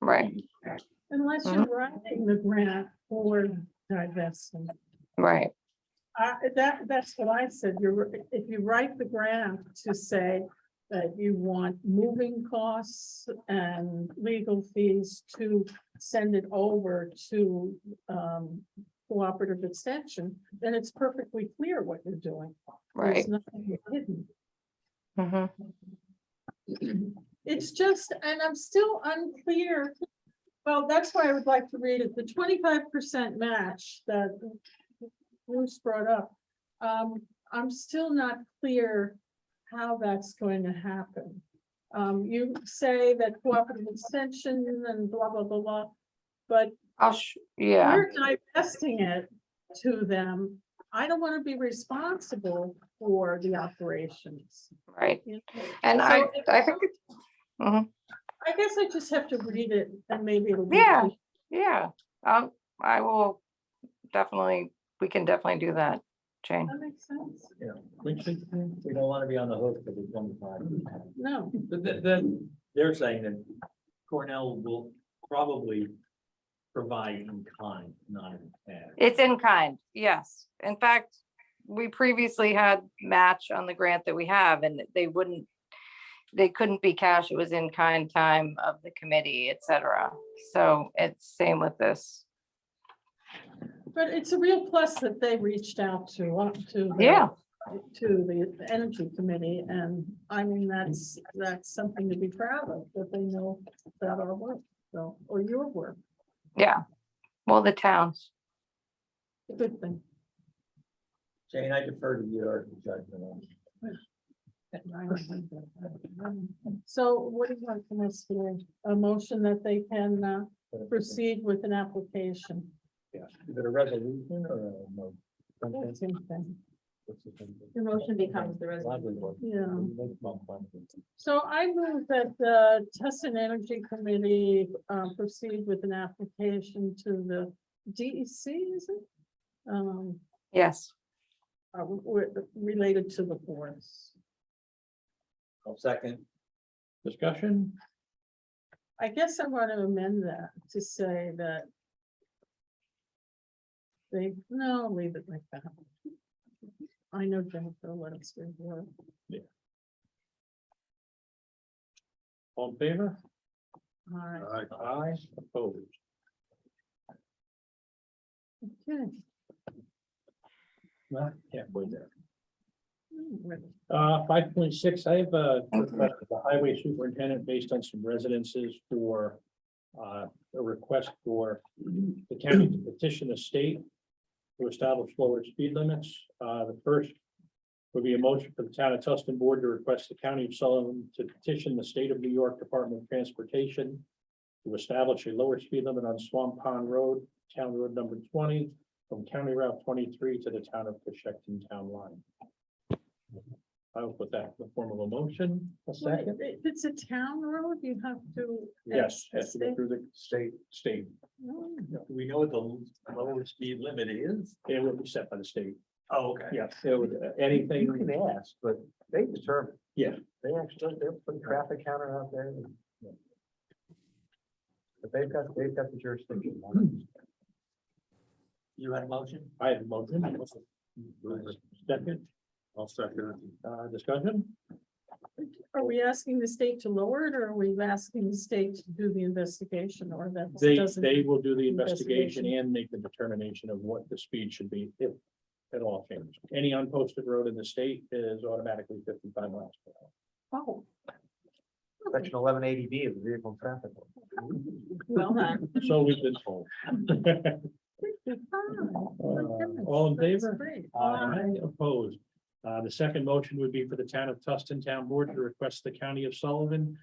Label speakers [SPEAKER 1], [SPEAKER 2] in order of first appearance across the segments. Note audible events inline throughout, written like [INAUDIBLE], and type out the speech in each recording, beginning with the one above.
[SPEAKER 1] right,
[SPEAKER 2] Unless you're writing the grant for divestment.
[SPEAKER 1] right.
[SPEAKER 2] I that, that's what I said. You're, if you write the grant to say that you want moving costs and legal fees to send it over to, um, cooperative extension, then it's perfectly clear what you're doing.
[SPEAKER 1] Right.
[SPEAKER 2] There's nothing hidden.
[SPEAKER 1] hmm
[SPEAKER 2] It's just, and I'm still unclear. Well, that's why I would like to read it, the twenty-five percent match that Bruce brought up. Um, I'm still not clear how that's going to happen. Um, you say that cooperative extension and blah, blah, blah, blah. But
[SPEAKER 1] I'll, sh- yeah,
[SPEAKER 2] we're divesting it to them. I don't want to be responsible for the operations.
[SPEAKER 1] right.
[SPEAKER 2] you know?
[SPEAKER 1] And
[SPEAKER 2] So
[SPEAKER 1] I,
[SPEAKER 2] if-
[SPEAKER 1] I think, it- mhm,
[SPEAKER 2] I guess I just have to read it and maybe it'll. be
[SPEAKER 1] Yeah. yeah, um, I will definitely, we can definitely do that, Jane.
[SPEAKER 2] That makes sense.
[SPEAKER 3] Yeah, we should, we don't want to be on the hook for the twenty-five.
[SPEAKER 2] No,
[SPEAKER 3] But then, then they're saying that Cornell will probably provide in kind, not in cash.
[SPEAKER 1] It's in kind, yes. In fact, we previously had match on the grant that we have and they wouldn't, they couldn't be cash, it was in kind time of the committee, et cetera. So it's same with this.
[SPEAKER 2] but it's a real plus that they reached out to, uh, to. the-
[SPEAKER 1] Yeah.
[SPEAKER 2] To the Energy Committee, and I mean, that's, that's something to be proud of, that they know about our work, so, or your work,
[SPEAKER 1] Yeah, well, the towns,
[SPEAKER 2] a good thing.
[SPEAKER 3] Jane, I defer to your judgment on.
[SPEAKER 2] So what do you want from us today? A motion that they can uh,
[SPEAKER 3] it.
[SPEAKER 2] proceed with an application?
[SPEAKER 3] Yeah. Is it a resolution or a mo- something?
[SPEAKER 2] That's anything.
[SPEAKER 3] What's the thing?
[SPEAKER 4] The motion becomes the
[SPEAKER 3] Lovely one.
[SPEAKER 2] Yeah.
[SPEAKER 3] We make bump bump.
[SPEAKER 2] So I move that the Test and Energy Committee uh, proceed with an application to the DEC, is it? Um,
[SPEAKER 1] yes.
[SPEAKER 2] uh, w- w- Related to the forest.
[SPEAKER 3] I'll second. Discussion?
[SPEAKER 2] I guess I want to amend that to say that they, no, leave it like that. I know Jennifer, what it's going to
[SPEAKER 3] All in favor?
[SPEAKER 2] All right,
[SPEAKER 3] Aye, opposed.
[SPEAKER 2] okay.
[SPEAKER 3] Not halfway there.
[SPEAKER 2] Hmm, really.
[SPEAKER 3] Uh, five point six, I have a
[SPEAKER 1] Thank you.
[SPEAKER 3] request of the highway superintendent based on some residences for. Uh, a request for the county to petition the state. To establish lower speed limits, uh, the first. Would be a motion for the town of Tustin Board to request the county of Sullivan to petition the state of New York Department of Transportation. To establish a lower speed limit on Swamp Pond Road, Town Road number twenty, from County Route twenty-three to the town of Coshecton Town Line. I will put that in the form of a motion. A
[SPEAKER 2] Wait, If it's a town road, you have to.
[SPEAKER 3] Yes, has to go
[SPEAKER 2] State?
[SPEAKER 3] through the state, state.
[SPEAKER 2] No.
[SPEAKER 3] We know what the lower speed limit is. It will be set by the state. Oh, okay. Yes, it would, uh, anything. You can ask, but they determine. Yeah. They actually, they're putting traffic counter out there. But they've got, they've got the jurisdiction. You had a motion? I had a motion. Second. I'll second. Uh, discussion?
[SPEAKER 2] Are we asking the state to lower it, or are we asking the state to do the investigation, or that
[SPEAKER 3] They,
[SPEAKER 2] doesn't?
[SPEAKER 3] they will do the investigation
[SPEAKER 2] investigation.
[SPEAKER 3] and make the determination of what the speed should be if at all changed. Any unposted road in the state is automatically fifty-five miles per hour.
[SPEAKER 2] Oh.
[SPEAKER 5] Section eleven eighty B of the vehicle and traffic. law.
[SPEAKER 2] Well done.
[SPEAKER 3] [LAUGHS] So we've been
[SPEAKER 2] [LAUGHS]
[SPEAKER 3] told.
[SPEAKER 2] Ah,
[SPEAKER 3] Uh,
[SPEAKER 2] my goodness,
[SPEAKER 3] All in
[SPEAKER 2] that's
[SPEAKER 3] favor?
[SPEAKER 2] great.
[SPEAKER 3] Aye, opposed. Uh, the second motion would be for the town of Tustin Town Board to request the county of Sullivan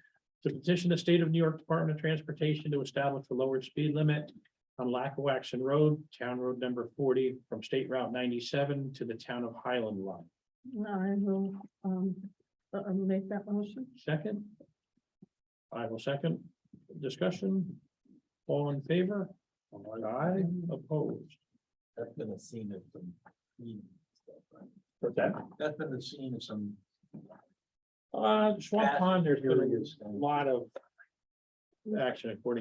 [SPEAKER 3] to petition the state of New York Department of Transportation to establish a lower speed limit on Lackawaxen Road, Town Road number forty, from State Route ninety-seven to the town of Highland Line.
[SPEAKER 2] I will, um, uh, uh, make that motion.
[SPEAKER 3] Second? I will second. Discussion? All in favor? Aye, opposed.
[SPEAKER 5] That's been a scene of some. mean stuff, right?
[SPEAKER 3] What's that?
[SPEAKER 5] That's been the scene of some.
[SPEAKER 3] Uh, Swamp Pond, there's been
[SPEAKER 5] Curious.
[SPEAKER 3] a lot of action according